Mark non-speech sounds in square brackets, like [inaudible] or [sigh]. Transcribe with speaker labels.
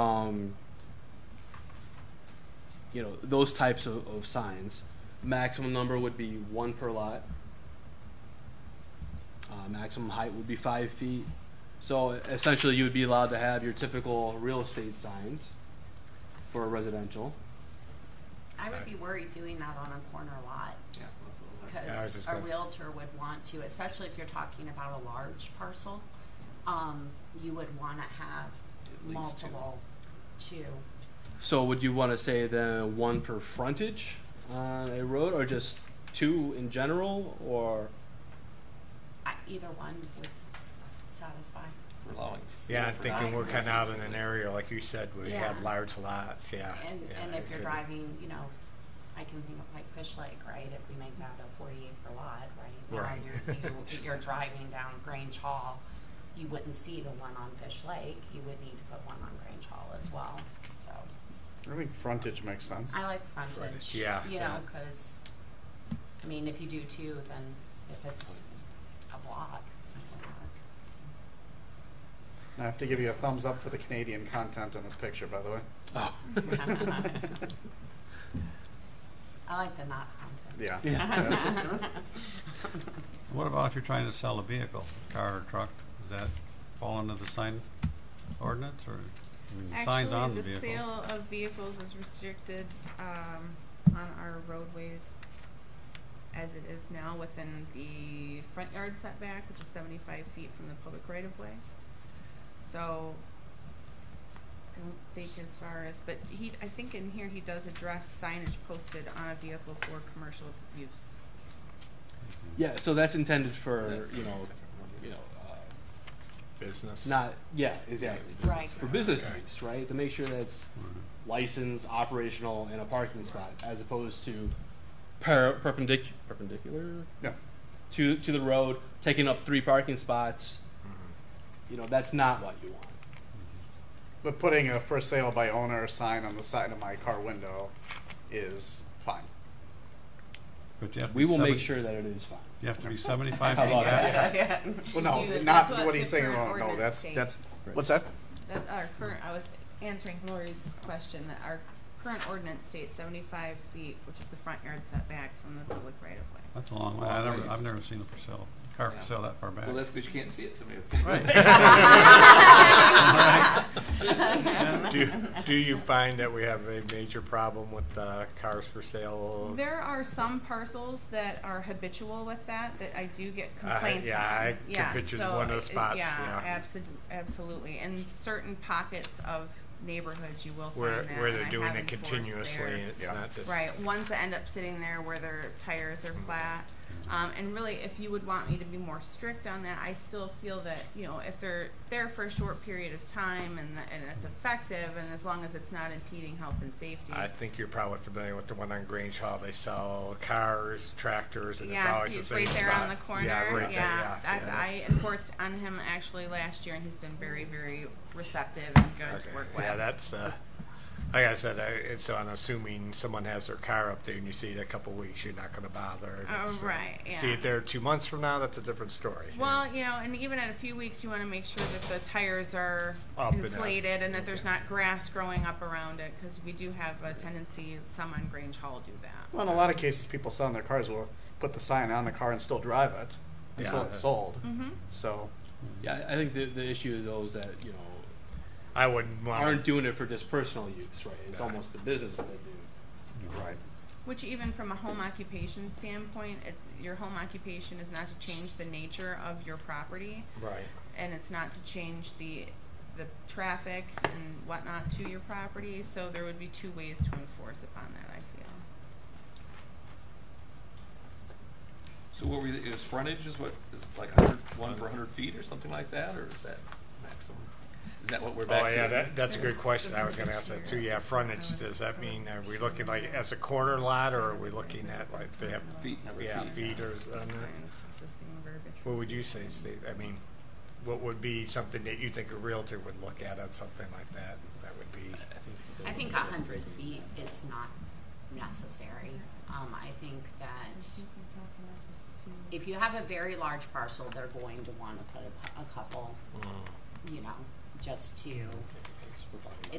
Speaker 1: um, you know, those types of, of signs. Maximum number would be one per lot. Uh, maximum height would be five feet. So essentially, you would be allowed to have your typical real estate signs for a residential.
Speaker 2: I would be worried doing that on a corner lot,
Speaker 3: Yeah, I was
Speaker 2: because
Speaker 3: just
Speaker 2: a
Speaker 3: gonna s-
Speaker 2: realtor would want to, especially if you're talking about a large parcel, um, you would wanna have
Speaker 4: At least two.
Speaker 2: multiple, two.
Speaker 1: So would you want to say then one per frontage on a road, or just two in general, or
Speaker 2: I- Either one would satisfy.
Speaker 4: We're allowing.
Speaker 3: Yeah, I'm
Speaker 4: four
Speaker 3: thinking
Speaker 4: for
Speaker 3: we're
Speaker 4: nine
Speaker 3: kind of out in
Speaker 4: residents,
Speaker 3: an area, like you said, where you have
Speaker 2: Yeah.
Speaker 3: large lots, yeah.
Speaker 2: And,
Speaker 3: yeah,
Speaker 2: and
Speaker 3: I
Speaker 2: if you're
Speaker 3: could-
Speaker 2: driving, you know, I can think of like Fish Lake, right? If we make that a forty acre lot, right? Now
Speaker 3: Right.
Speaker 2: you're-
Speaker 3: [laughs]
Speaker 2: you- You're driving down Grange Hall, you wouldn't see the one on Fish Lake, you would need to put one on Grange Hall as well, so.
Speaker 5: I think frontage makes sense.
Speaker 2: I like
Speaker 3: Frontage,
Speaker 2: frontage, you
Speaker 3: yeah, yeah.
Speaker 2: know, cause, I mean, if you do two, then if it's a block, a block.
Speaker 5: And I have to give you a thumbs up for the Canadian content in this picture, by the way.
Speaker 1: oh.
Speaker 2: I like the not haunted.
Speaker 5: Yeah.
Speaker 6: What about if you're trying to sell a vehicle, car or truck? Does that fall under the sign ordinance or I mean, the signs on the vehicle?
Speaker 7: Actually, the sale of vehicles is restricted, um, on our roadways as it is now within the front yard setback, which is seventy-five feet from the public right of way. So, I don't think as far as, but he, I think in here he does address signage posted on a vehicle for commercial use.
Speaker 1: yeah. So that's intended for
Speaker 4: That's
Speaker 1: you know,
Speaker 4: different.
Speaker 1: you know, uh,
Speaker 3: Business.
Speaker 1: not yeah, exactly
Speaker 2: Right.
Speaker 1: for business
Speaker 3: Okay.
Speaker 1: use, right? To make sure that it's
Speaker 6: Mhm.
Speaker 1: licensed, operational, in a parking spot, as opposed to per- perpendic- perpendicular
Speaker 5: Yeah.
Speaker 1: to to the road, taking up three parking spots. You know, that's not what you want.
Speaker 5: But putting a for sale by owner sign on the side of my car window is fine.
Speaker 6: But you have to
Speaker 1: We
Speaker 6: be
Speaker 1: will make
Speaker 6: 70
Speaker 1: sure that it is fine.
Speaker 6: You have to be
Speaker 4: [laughs]
Speaker 6: seventy-five
Speaker 1: How
Speaker 6: feet
Speaker 1: about
Speaker 6: back.
Speaker 5: Well, no,
Speaker 7: You-
Speaker 5: not
Speaker 7: that's what
Speaker 5: what he's
Speaker 7: the
Speaker 5: saying.
Speaker 7: current
Speaker 5: No,
Speaker 7: ordinance
Speaker 5: that's,
Speaker 7: states.
Speaker 5: that's, what's that?
Speaker 7: That our current, I was answering Lori's question, that our current ordinance states seventy-five feet, which is the front yard setback from the public right of way.
Speaker 6: That's a long way. I
Speaker 4: Long
Speaker 6: never,
Speaker 4: ways.
Speaker 6: I've never seen a for sale, car
Speaker 4: Yeah.
Speaker 6: for sale that far back.
Speaker 4: Well, that's because you can't see it, so maybe. [laughs]
Speaker 6: Yeah.
Speaker 3: Do, do you find that we have a major problem with, uh, cars for sale?
Speaker 7: There are some parcels that are habitual with that, that I do get
Speaker 3: I-
Speaker 7: complaints on.
Speaker 3: yeah, I can
Speaker 7: Yeah,
Speaker 3: picture
Speaker 7: so
Speaker 3: one of the
Speaker 7: it- it-
Speaker 3: spots, yeah.
Speaker 7: Yeah, abso- absolutely, and certain pockets of neighborhoods you will find
Speaker 3: Where,
Speaker 7: that,
Speaker 3: where
Speaker 7: and
Speaker 3: they're
Speaker 7: I
Speaker 3: doing
Speaker 7: have
Speaker 3: it
Speaker 7: enforced
Speaker 3: continuously
Speaker 7: there.
Speaker 3: and it's
Speaker 5: Yeah.
Speaker 3: not just.
Speaker 7: Right, ones that end up sitting there where their tires are flat. Um, and really, if you would want me to be more strict on that, I still feel that, you know, if they're there for a short period of time and, and it's effective, and as long as it's not impeding health and safety.
Speaker 3: I think you're probably familiar with the one on Grange Hall. They sell cars, tractors, and it's
Speaker 7: Yeah,
Speaker 3: always
Speaker 7: see,
Speaker 3: the
Speaker 7: it's
Speaker 3: same
Speaker 7: right there
Speaker 3: spot.
Speaker 7: on the corner.
Speaker 3: Yeah, right there. Yeah,
Speaker 7: that's,
Speaker 3: yeah,
Speaker 7: I enforced on him actually last year, and he's been very, very receptive and good
Speaker 3: Okay.
Speaker 7: to work with.
Speaker 3: Yeah, that's, uh, like I said, I, it's on assuming someone has their car up there and you see it a couple weeks, you're not gonna bother. and
Speaker 7: Oh,
Speaker 3: it's, uh,
Speaker 7: right,
Speaker 3: See
Speaker 7: yeah.
Speaker 3: it there two months from now, that's a different story.
Speaker 7: Well, you know, and even at a few weeks, you want to make sure that the tires are
Speaker 3: Up and up.
Speaker 7: inflated and that there's
Speaker 3: Okay.
Speaker 7: not grass growing up around it, because we do have a tendency, some on Grange Hall do that.
Speaker 5: Well, in a lot of cases, people selling their cars will put the sign on the car and still drive it until
Speaker 3: Yeah.
Speaker 5: it's sold.
Speaker 7: Mm-hmm.
Speaker 5: So,
Speaker 1: Yeah, I I think the, the issue is those that, you know,
Speaker 3: I wouldn't
Speaker 1: aren't
Speaker 3: want,
Speaker 1: doing it for just personal use, right? It's
Speaker 3: Uh-huh. Yeah.
Speaker 1: almost the business that they do.
Speaker 5: right.
Speaker 7: Which even from a home occupation standpoint, it, your home occupation is not to change the nature of your property,
Speaker 3: right.
Speaker 7: and it's not to change the, the traffic and whatnot to your property, so there would be two ways to enforce upon that, I feel.
Speaker 4: So what were, you- is frontage is what, is it like 100 one per hundred feet or something like that, or is that maximum? Is that what we're back
Speaker 3: Oh,
Speaker 4: to?
Speaker 3: yeah, that, that's a good question. I was gonna ask that
Speaker 7: Frontage
Speaker 3: too.
Speaker 7: here.
Speaker 3: Yeah,
Speaker 7: Oh.
Speaker 3: frontage, does that mean, are we looking like as a corner lot or are we looking at like they have?
Speaker 4: Feet, number
Speaker 3: Yeah,
Speaker 4: feet.
Speaker 3: feet or,
Speaker 7: Signs,
Speaker 3: on
Speaker 7: it's
Speaker 3: there?
Speaker 7: the same verbiage.
Speaker 3: What would you say, Steve? I mean, what would be something that you think a realtor would look at on something like that? That would be,
Speaker 2: I think a hundred feet is not necessary. Um, I think that if you have a very large parcel, they're going to wanna put a, cou- a couple, you know, just to